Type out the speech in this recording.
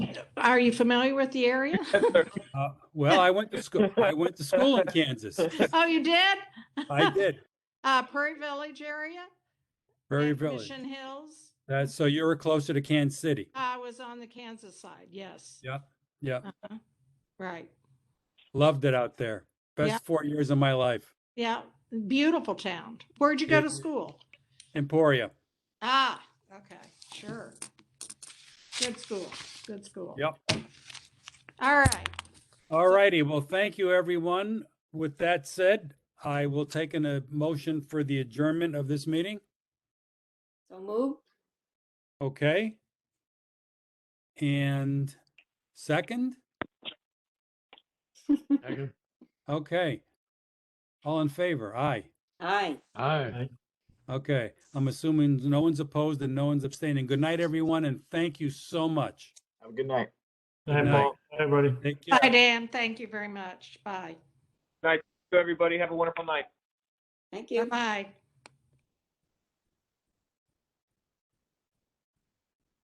Are you familiar with the area? Uh, Well, I went to school, I went to school in Kansas. Oh, you did? I did, Uh, Prairie Village area? Prairie and Village. Mission Hills? That's, so you were closer to Kansas City. I was on the Kansas side, yes. Yeah. Yeah, Uh-huh. Right, loved it out there. Yeah. Best four years of my life. yeah, beautiful town. Where'd you go to It- school? Emporia. Ah, okay, sure. Good school, good school. Yep. All right, All righty, well, thank you, everyone. With that said, I will take an a motion for the adjournment of this meeting, So moved. okay? And second, Second. okay. All in favor, aye. Aye. Aye. Okay, I'm assuming no one's opposed and no one's abstaining. Good night, everyone, and thank you so much. Have a good night. Night, night. Paul. Night, everybody. Take care. bye, Dan, thank you very much, bye, Everybody have a wonderful night. Thank you. bye-bye.